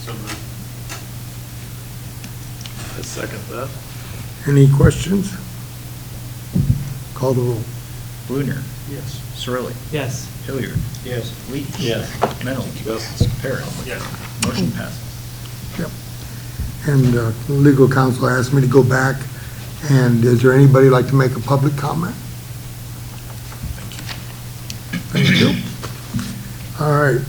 So moved. I second that. Any questions? Call the roll. Bluner, Yes. Cirilli, Yes. Hilliard, Yes. Leach. Yes. Mennel. Yes. Parrot. Yes. Motion passes. Yep. And uh, legal counsel asked me to go back, and is there anybody like to make a public comment? Thank you. All right.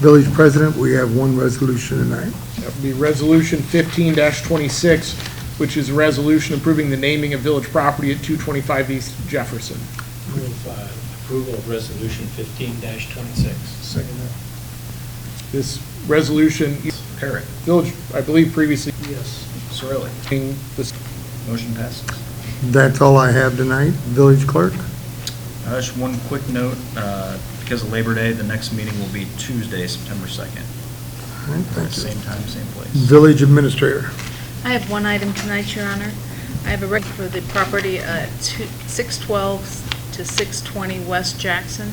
Village President, we have one resolution tonight. That would be Resolution fifteen twenty-six, which is a resolution approving the naming of village property at two twenty-five East Jefferson. Move uh, approval of Resolution 15-26. Second This resolution, Parrot. village, I believe previously, Yes. Cirilli. being this Motion passes. That's all I have tonight. Village Clerk? Uh, Just one quick note, uh, because of Labor Day, the next meeting will be Tuesday, September 2nd. All right, thank you. Same time, same place. Village Administrator? I have one item tonight, Your Honor. I have a record for the property at two- 612 to 620 West Jackson.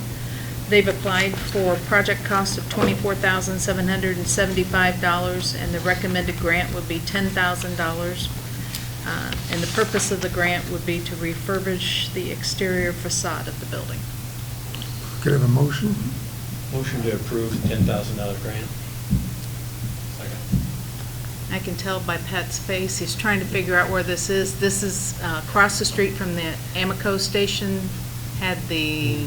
They've applied for project cost of $24,775, and the recommended grant would be $10,000. Uh, And the purpose of the grant would be to refurbish the exterior facade of the building. Could I have a motion? Motion to approve $10,000 grant. Second. I can tell by Pat's face, he's trying to figure out where this is. This is uh, across the street from the Amico station, had the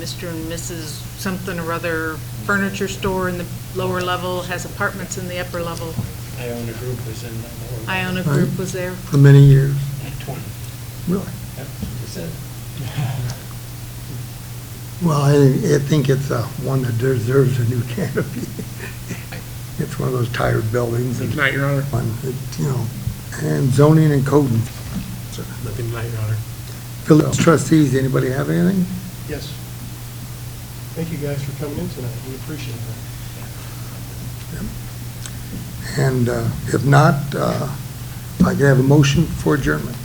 Mr. and Mrs. something or other furniture store in the lower level, has apartments in the upper level. Iona Group was in the... Iona Group was there. For many years. 20. Really? Yep, that's it. Well, I, I think it's uh, one that deserves a new canopy. It's one of those tired buildings. and- tonight, Your Honor. one, it, you know, and zoning and coding. Nothing tonight, Your Honor. Village trustees, anybody have anything? Yes. Thank you guys for coming in tonight. We appreciate that. And uh, if not, uh, I can have a motion for adjournment.